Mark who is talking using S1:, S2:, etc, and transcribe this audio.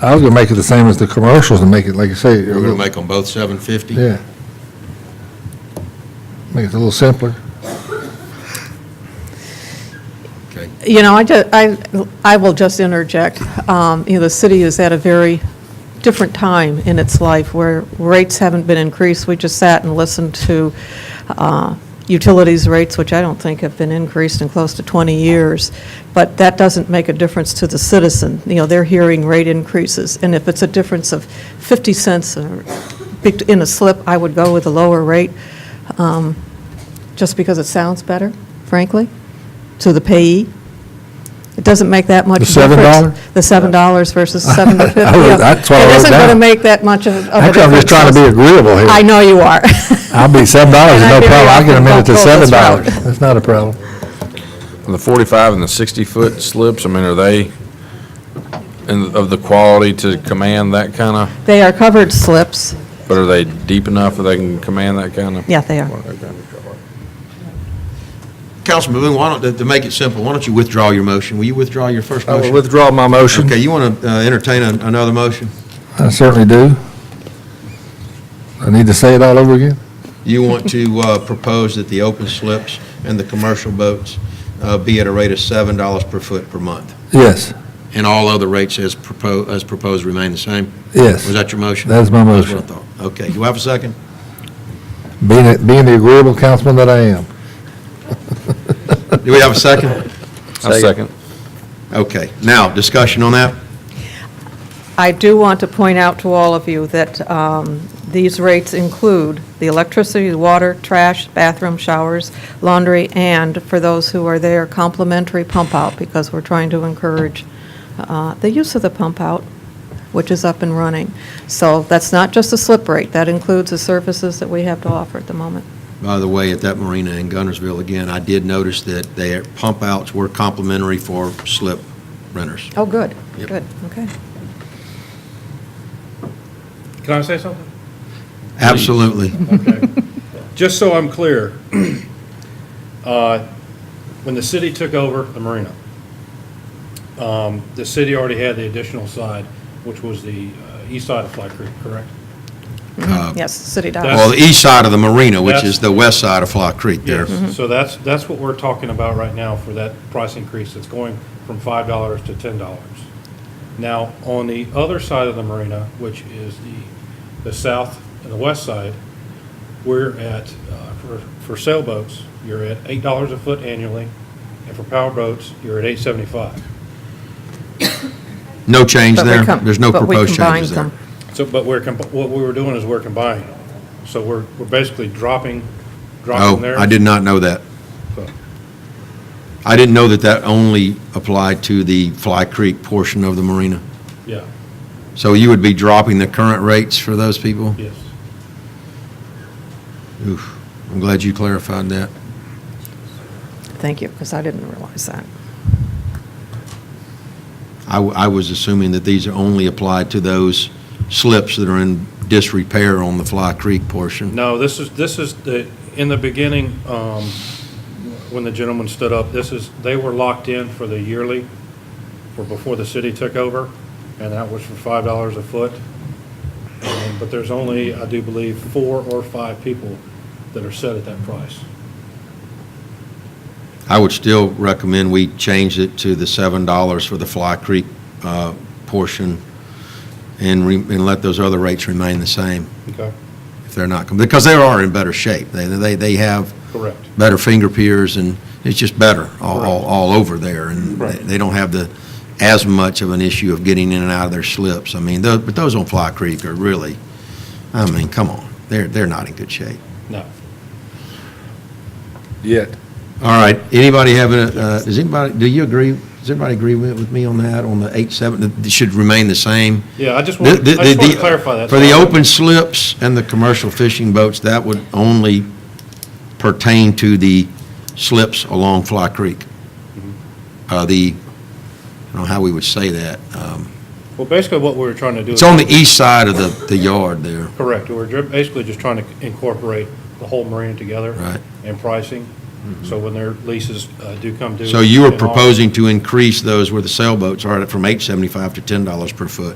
S1: I was gonna make it the same as the commercials and make it, like I say, a
S2: We're going to
S1: little-
S2: make them both 750?
S1: yeah. Make it a little simpler.
S2: Okay.
S3: You know, I, ju- I, I will just interject. Um, You know, the city is at a very different time in its life where rates haven't been increased. We just sat and listened to uh, utilities rates, which I don't think have been increased in close to 20 years. But that doesn't make a difference to the citizen. You know, they're hearing rate increases. And if it's a difference of 50 cents or in a slip, I would go with a lower rate um, just because it sounds better, frankly, to the payee. It doesn't make that much
S1: The
S3: difference.
S1: $7?
S3: The $7 versus 7 to 50.
S1: I wrote-
S3: yeah.
S1: that's what I
S3: It
S1: wrote
S3: isn't going to
S1: down.
S3: make that much of of a difference.
S1: Actually, I'm just trying to be agreeable here.
S3: I know you are.
S1: I'll be seven dollars,
S3: And
S1: no
S3: I very
S1: problem, I'll get a
S3: often
S1: minute to
S3: don't go
S1: seven
S3: this
S1: dollars.
S3: route.
S1: That's not a problem.
S4: The 45 and the 60-foot slips, I mean, are they in- of the quality to command that kind of,
S3: They are covered slips.
S4: but are they deep enough that they can command that kind of?
S3: Yeah, they are.
S2: Councilman Boone, why don't, to- to make it simple, why don't you withdraw your motion? Will you withdraw your first
S4: I will
S2: motion?
S4: withdraw my motion.
S2: Okay, you want to entertain an- another motion?
S1: I certainly do. I need to say it all over again?
S2: You want to uh, propose that the open slips and the commercial boats uh, be at a rate of $7 per foot per month?
S1: Yes,
S2: And all other rates as proposed, as proposed remain the same?
S1: yes.
S2: Was that your motion?
S1: That is my
S2: That's what I
S1: motion.
S2: thought. Okay, do I have a second?
S1: Being, being the agreeable councilman that I am.
S2: Do we have a second?
S4: I second.
S2: Okay, now, discussion on that?
S3: I do want to point out to all of you that um, these rates include the electricity, the water, trash, bathroom, showers, laundry, and for those who are there, complimentary pump-out, because we're trying to encourage uh, the use of the pump-out, which is up and running. So that's not just a slip rate, that includes the services that we have to offer at the moment.
S2: By the way, at that marina in Gunnersville, again, I did notice that their pump outs were complimentary for slip renters.
S3: Oh, good,
S2: Yep.
S3: good, okay.
S5: Can I say something?
S2: Absolutely.
S5: Just so I'm clear, uh, when the city took over the marina, um, the city already had the additional side, which was the uh, east side of Fly Creek, correct?
S2: Uh,
S3: Yes, city
S2: Well,
S3: dollars.
S2: the east side of the marina, which is the west side of Fly Creek there.
S5: So that's, that's what we're talking about right now for that price increase. It's going from five dollars to ten dollars. Now, on the other side of the marina, which is the, the south and the west side, we're at, uh, for, for sailboats, you're at eight dollars a foot annually, and for power boats, you're at eight seventy-five.
S2: Mm-hmm. No change
S3: But we
S2: there.
S3: com-
S2: There's no
S3: but we
S2: proposed
S3: combined
S2: changes there.
S3: them.
S5: So, but we're, comp- what we were doing is we're combining. them. So we're, we're basically dropping, dropping
S2: Oh,
S5: there.
S2: I did not know that.
S5: So-
S2: I didn't know that that only applied to the Fly Creek portion of the marina.
S5: Yeah,
S2: So you would be dropping the current rates for those people?
S5: yes.
S2: Oof, I'm glad you clarified that.
S3: Thank you, because I didn't realize that.
S2: I, w- I was assuming that these are only applied to those slips that are in disrepair on the Fly Creek portion.
S5: No, this is, this is the, in the beginning, um, when the gentleman stood up, this is, they were locked in for the yearly, for before the city took over, and that was for five dollars a foot. Um, But there's only, I do believe, four or five people that are set at that price.
S2: I would still recommend we change it to the seven dollars for the Fly Creek, uh, portion and re, and let those other rates remain the same
S5: Okay.
S2: if they're not, com- because they are in better shape. They, they, they have
S5: Correct.
S2: better finger piers and it's just better all, all,
S5: Correct.
S2: all over there. And they-
S5: Right.
S2: they don't have the, as much of an issue of getting in and out of their slips. I mean, tho- but those on Fly Creek are really, I mean, come on, they're, they're not in good shape.
S5: No.
S1: Yet.
S2: All right, anybody have, a- uh, does anybody, do you agree, does anybody agree with with me on that, on the eight, seven, it should remain the same?
S5: Yeah, I just
S2: The-
S5: want,
S2: the-
S5: I just want
S2: the-
S5: to clarify that.
S2: For the open slips and the commercial fishing boats, that would only pertain to the slips along Fly Creek.
S5: Mm-hmm.
S2: Uh, The, I don't know how we would say that. Um,
S5: Well, basically what we were trying to do.
S2: It's
S5: is-
S2: on the east side of the, the yard there,
S5: Correct. We're ju- basically just trying to incorporate the whole marina together.
S2: Right. Mm-hmm.
S5: And pricing, so when their leases uh, do come due.
S2: so you were
S5: and all-
S2: proposing to increase those where the sailboats are from 875 to $10 per foot.